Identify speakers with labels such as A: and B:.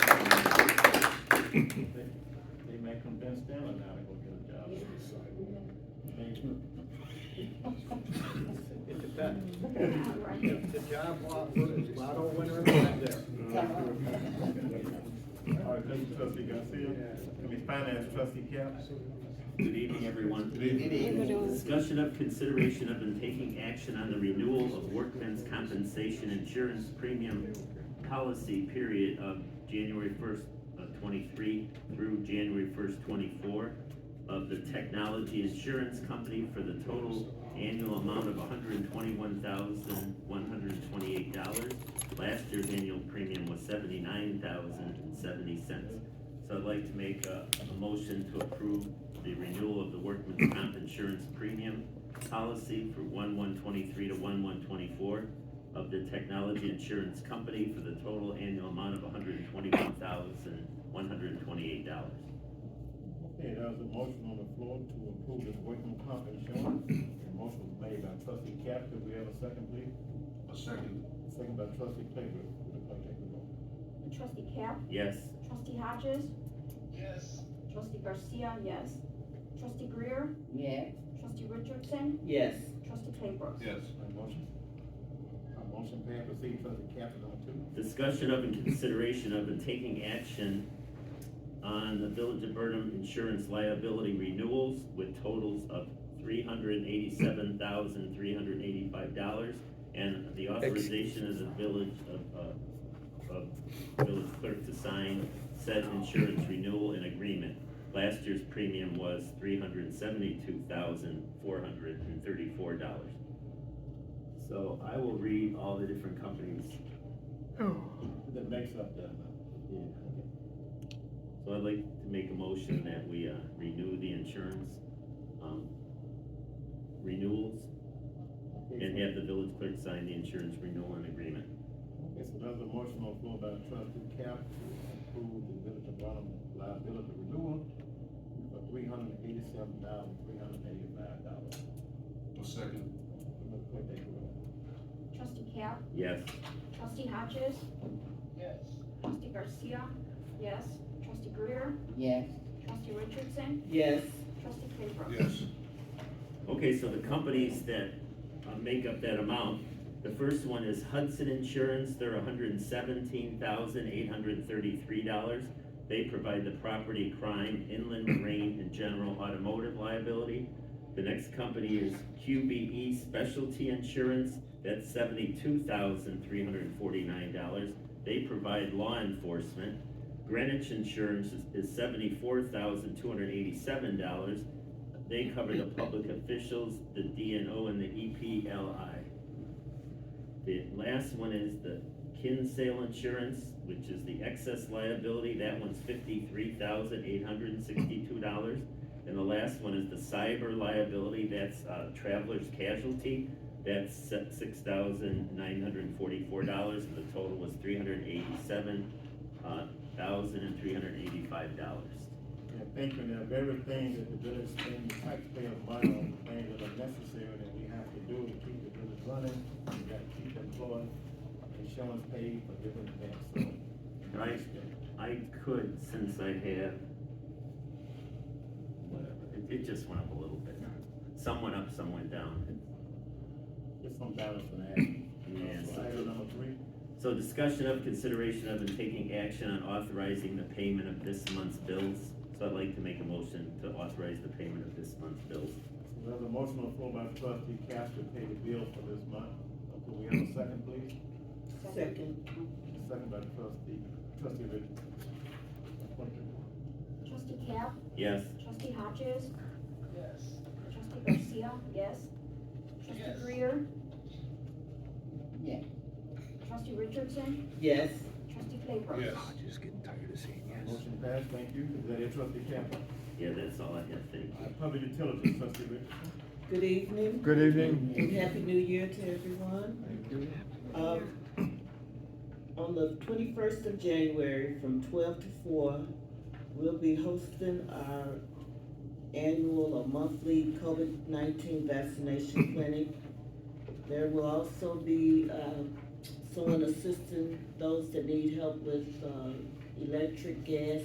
A: that convinced them of now to go get a job.
B: It depends. If The job lot was Lotto winner back there.
A: All right, thank you, trustee Garcia. I mean, finance trustee Cap.
C: Good evening, everyone.
D: evening.
C: Discussion of consideration of and taking action on the renewal of workmen's compensation insurance premium policy period of January first of twenty-three through January first twenty-four of the technology insurance company for the total annual amount of hundred and twenty-one thousand, one hundred and twenty-eight dollars. Last year's annual premium was seventy-nine thousand and seventy cents. So I'd like to make a, a motion to approve the renewal of the workman's comp insurance premium policy for one one twenty-three to one one twenty-four of the technology insurance company for the total annual amount of hundred and twenty-one thousand, one hundred and twenty-eight dollars.
A: Okay, there's a motion on the floor to approve this workman comp insurance. The motion was made by trustee Cap. Could we have a second, please?
E: A second.
A: Second by trustee Claybrook. Would the clerk take the roll?
D: Trustee Cap,
C: Yes,
D: trustee Hodges,
E: Yes.
D: trustee Garcia, yes. Trustee Greer,
F: Yeah.
D: trustee Richardson,
F: Yes.
D: trustee Claybrook.
E: Yes.
A: My motion. My motion passed. Proceed, trustee Cap is on two.
C: discussion of and consideration of and taking action on the Village of Burnham insurance liability renewals with totals of three hundred and eighty-seven thousand, three hundred and eighty-five dollars and the authorization of the village of, uh, of village clerk to sign said insurance renewal and agreement. Last year's premium was three hundred and seventy-two thousand, four hundred and thirty-four dollars. So I will read all the different companies
A: That makes up that amount.
C: yeah, okay. So I'd like to make a motion that we, uh, renew the insurance, um, renewals and have the village clerk sign the insurance renewal and agreement.
A: Okay, so there's a motion on the floor by trustee Cap to approve the village of Burnham liability renewal for three hundred and eighty-seven thousand, three hundred and eighty-five dollars.
E: A second.
A: Would the clerk take the roll?
D: Trustee Cap,
C: Yes,
D: trustee Hodges,
E: Yes.
D: trustee Garcia, yes. Trustee Greer,
F: Yes.
D: trustee Richardson,
F: Yes.
D: trustee Claybrook.
E: Yes.
C: okay, so the companies that, uh, make up that amount, the first one is Hudson Insurance, they're hundred and seventeen thousand, eight hundred and thirty-three dollars. They provide the property crime, inland marine, and general automotive liability. The next company is QBE Specialty Insurance, that's seventy-two thousand three hundred and forty-nine dollars. They provide law enforcement. Greenwich Insurance is- is seventy-four thousand two hundred and eighty-seven dollars. They cover the public officials, the DNO, and the E EPLI. The last one is the Kinsale Insurance, which is the excess liability, that one's fifty-three thousand eight hundred and sixty-two dollars. And the last one is the cyber liability, that's, uh, traveler's casualty, that's six thousand nine hundred and forty-four dollars, and the total was three hundred and eighty-seven, uh, thousand and three hundred and eighty-five dollars.
A: And thank you, and everything that the village spends taxpayer money on, things that are necessary that we have to do to keep the village running, we gotta keep employing, insurance paid for different events, so.
C: Right. I could, since I have, whatever, it, it just went up a little bit. Some went up, some went down.
A: Just some balance in that.
C: Yeah,
A: So
C: so-
A: item number three,
C: So discussion of consideration of and taking action on authorizing the payment of this month's bills. So I'd like to make a motion to authorize the payment of this month's bills.
A: So there's a motion on the floor by trustee Cap to pay the bill for this month, Uh, could we have a second, please?
F: Second.
A: Second by trustee, trustee Richardson. Thank you.
D: Trustee Cap,
C: Yes,
D: trustee Hodges,
E: Yes.
D: trustee Garcia, yes. Trustee
E: Yes.
D: Greer,
F: Yes.
D: trustee Richardson,
F: Yes.
D: trustee Claybrook.
E: Yes.
A: Motion passed, thank you, is that it, trustee Cap?
C: yeah, that's all I have, thank you.
A: Public utilities, trustee Richardson.
G: Good evening
H: Good evening.
G: and happy new year to everyone. Um, On the twenty-first of January from twelve to four, we'll be hosting our annual or monthly COVID nineteen vaccination clinic. There will also be, uh, someone assisting those that need help with, uh, electric, gas,